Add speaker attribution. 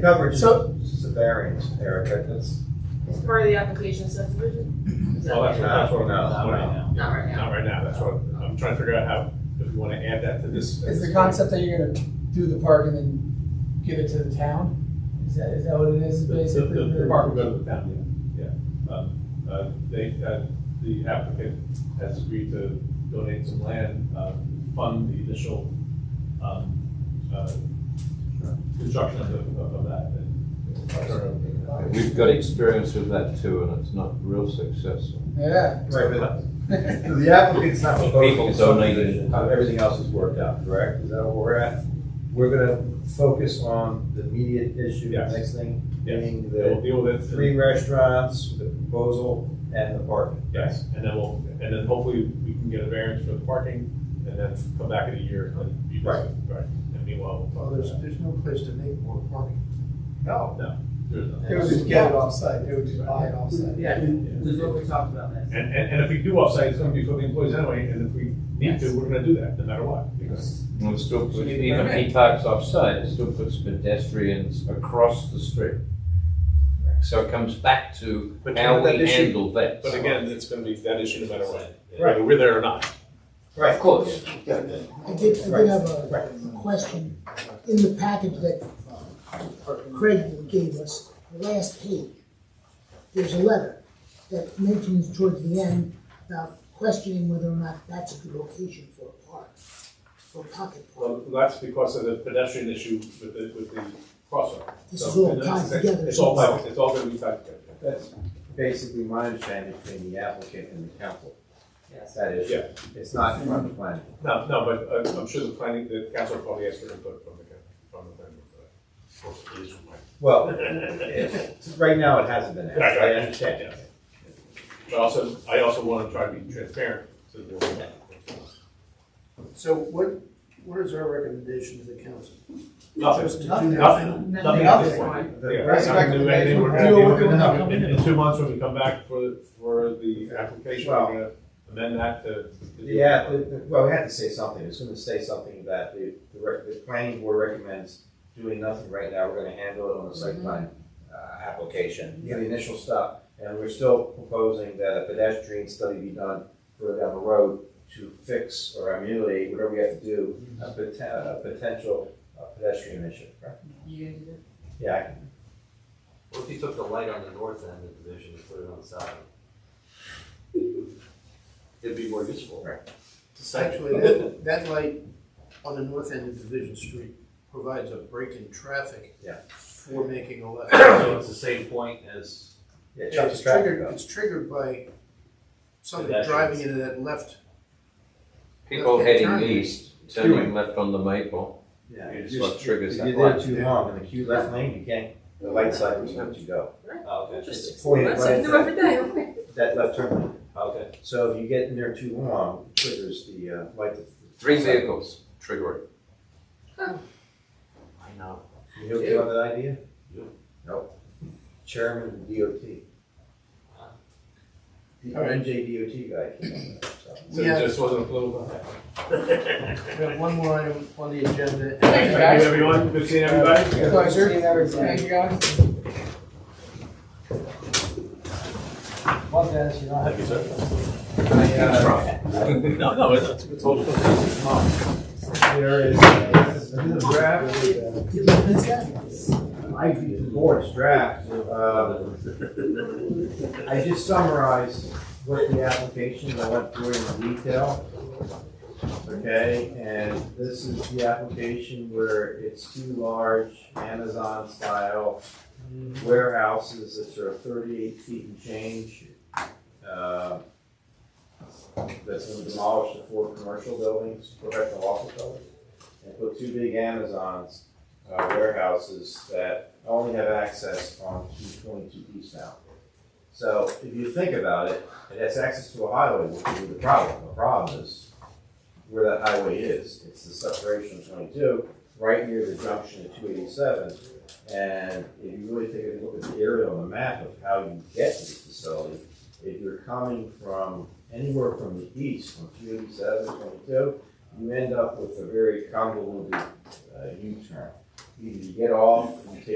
Speaker 1: coverage
Speaker 2: So-
Speaker 1: is a variance, Erica, that's,
Speaker 3: It's part of the application subdivision? Is that-
Speaker 4: Well, that's what, that's what,
Speaker 1: No,
Speaker 4: not right now.
Speaker 3: Not right now.
Speaker 4: Not right now, that's what, I'm trying to figure out how, if we wanna add that to this.
Speaker 2: Is the concept that you're gonna do the park and then give it to the town? Is that, is that what it is,
Speaker 4: The,
Speaker 2: basically?
Speaker 4: the, the park will go to the town, yeah, yeah. Um, Uh, they, uh, the applicant has agreed to donate some land, uh, fund the initial, um, uh, construction of, the- of of that. and- uh,
Speaker 5: We've got experience with that too, and it's not real successful.
Speaker 2: Yeah.
Speaker 1: right, but the applicant's not
Speaker 5: People
Speaker 1: proposing a
Speaker 5: donate
Speaker 1: subdivision, how everything else is worked out, correct? Is that where we're at? We're gonna focus on the immediate issue, the
Speaker 4: Yes.
Speaker 1: next thing,
Speaker 4: Yes,
Speaker 1: being
Speaker 4: they will
Speaker 1: the
Speaker 4: deal with it.
Speaker 1: three restaurants, the proposal, and the parking.
Speaker 4: Yes, and then we'll, and then hopefully we can get a variance for the parking, and then come back in a year and be
Speaker 1: Right.
Speaker 4: Right, and meanwhile.
Speaker 6: Well, there's, there's no place to make more parking.
Speaker 2: No.
Speaker 4: there's nothing.
Speaker 2: They would just get it offsite, they would just buy it offsite.
Speaker 3: Yeah, is what we talked about last.
Speaker 4: And, and, and if we do offsite, it's gonna be for the employees anyway, and if we need to, we're gonna do that, no matter what, because.
Speaker 5: And it still puts, even if he parks offside, it still puts pedestrians across the street. So it comes back to
Speaker 4: But
Speaker 5: how
Speaker 4: that
Speaker 5: we
Speaker 4: issue-
Speaker 5: handle that.
Speaker 4: But again, it's gonna be that issue no matter what,
Speaker 1: Right.
Speaker 4: whether we're there or not.
Speaker 5: Of course,
Speaker 7: I did, I
Speaker 1: Right.
Speaker 7: did have a question. In the package that Craig gave us, the last page, there's a letter that mentions towards the end about questioning whether or not that's a good location for a park, for a pocket park.
Speaker 4: Well, that's because of the pedestrian issue with the, with the crosswalk.
Speaker 7: This
Speaker 4: So,
Speaker 7: is all
Speaker 4: and that's
Speaker 7: tied
Speaker 4: the same.
Speaker 7: together.
Speaker 4: It's all, tied- it's all gonna be tied together.
Speaker 1: That's basically my understanding between the applicant and the council,
Speaker 3: Yes.
Speaker 1: that is,
Speaker 4: Yeah.
Speaker 1: it's not in front of the planning.
Speaker 4: No, no, but uh, I'm sure the planning, the council probably asked for input from the, coun- from the planning board for that. Of course, it is my-
Speaker 1: Well, it's- right now it hasn't been asked,
Speaker 4: Right, right.
Speaker 1: I understand.
Speaker 4: But also, I also wanna try to be transparent to the board.
Speaker 6: So what, what is our recommendation to the council?
Speaker 4: Nothing,
Speaker 6: Just to do
Speaker 2: Nothing.
Speaker 4: nothing, nothing at this point.
Speaker 1: The
Speaker 4: Yeah,
Speaker 1: rest
Speaker 4: we're not gonna do anything. We're gonna
Speaker 2: Deal
Speaker 4: do-
Speaker 2: with it when they come
Speaker 4: In, in two months, when we come back for, the- for the application, we're
Speaker 1: Well-
Speaker 4: gonna amend that to. to do-
Speaker 1: Yeah, the- the- well, we had to say something, it's gonna say something that the, the rec- the planning board recommends doing nothing right now, we're gonna handle it on the site plan, uh, application, the initial stuff, and we're still proposing that a pedestrian study be done further down the road to fix or ameliorate, whatever we have to do, a poten- a potential uh, pedestrian issue, right?
Speaker 3: You gonna do that?
Speaker 1: Yeah, I can
Speaker 8: What if you took the light on the north end of the division and put it on the side? It'd be more useful.
Speaker 1: Right.
Speaker 6: Actually, that, that light on the north end of Division Street provides a break in traffic.
Speaker 1: Yeah.
Speaker 6: For making a left.
Speaker 8: So it's the same point as,
Speaker 1: Yeah,
Speaker 6: And
Speaker 1: Chuck is
Speaker 6: It's
Speaker 1: tracking
Speaker 6: triggered,
Speaker 1: though.
Speaker 6: it's triggered by somebody
Speaker 8: Pedestrians.
Speaker 6: driving into that left.
Speaker 5: people
Speaker 6: Okay,
Speaker 5: heading
Speaker 6: turn.
Speaker 5: east, turning left on the maple,
Speaker 1: Yeah,
Speaker 5: it's
Speaker 1: you
Speaker 5: what
Speaker 1: just-
Speaker 5: triggers
Speaker 1: if
Speaker 5: that
Speaker 1: You're there
Speaker 5: light.
Speaker 1: too long in the queue left lane, you can't, the light side was meant to go.
Speaker 8: oh, okay,
Speaker 3: Just
Speaker 1: It's pointed
Speaker 3: That's
Speaker 1: right
Speaker 3: something
Speaker 1: at
Speaker 3: new every day, okay.
Speaker 1: That left turn lane.
Speaker 8: Oh, okay.
Speaker 1: So if you get in there too long, it triggers the, uh, light. to-
Speaker 5: Three vehicles trigger it.
Speaker 8: I know.
Speaker 1: You okay on that idea?
Speaker 8: Yeah.
Speaker 1: Nope. Chairman of the DOT.
Speaker 8: Uh-huh.
Speaker 1: The
Speaker 6: All right.
Speaker 1: NJ DOT guy came up with that, so.
Speaker 4: So
Speaker 6: Yeah.
Speaker 4: it just wasn't a political. Thank
Speaker 6: We have one more item on the agenda.
Speaker 2: Thank you, guys.
Speaker 4: you, everyone, good seeing everybody.
Speaker 2: Pleasure. Thank you, guys.
Speaker 6: Well, Dennis, you know, I-
Speaker 1: I, uh,
Speaker 4: No, no, it's, it's all.
Speaker 1: There is, this is a draft,
Speaker 7: Did you miss that?
Speaker 1: I, the board's draft, uh, I just summarized what the application, I went through it in detail. Okay, and this is the application where it's two large Amazon style warehouses that are thirty-eight feet and change. uh, That's gonna demolish the four commercial buildings, professional office buildings, and put two big Amazons, uh, warehouses that only have access on two twenty-two eastbound. So if you think about it, it has access to a highway, which would be the problem. The problem is where that highway is. It's the separation of twenty-two, right near the junction of two eighty-seven. And if you really take a look at the area on the map of how you get to the facility, if you're coming from anywhere from the east, from 287, 22, you end up with a very convoluted, uh, U-turn. Either you get off, you take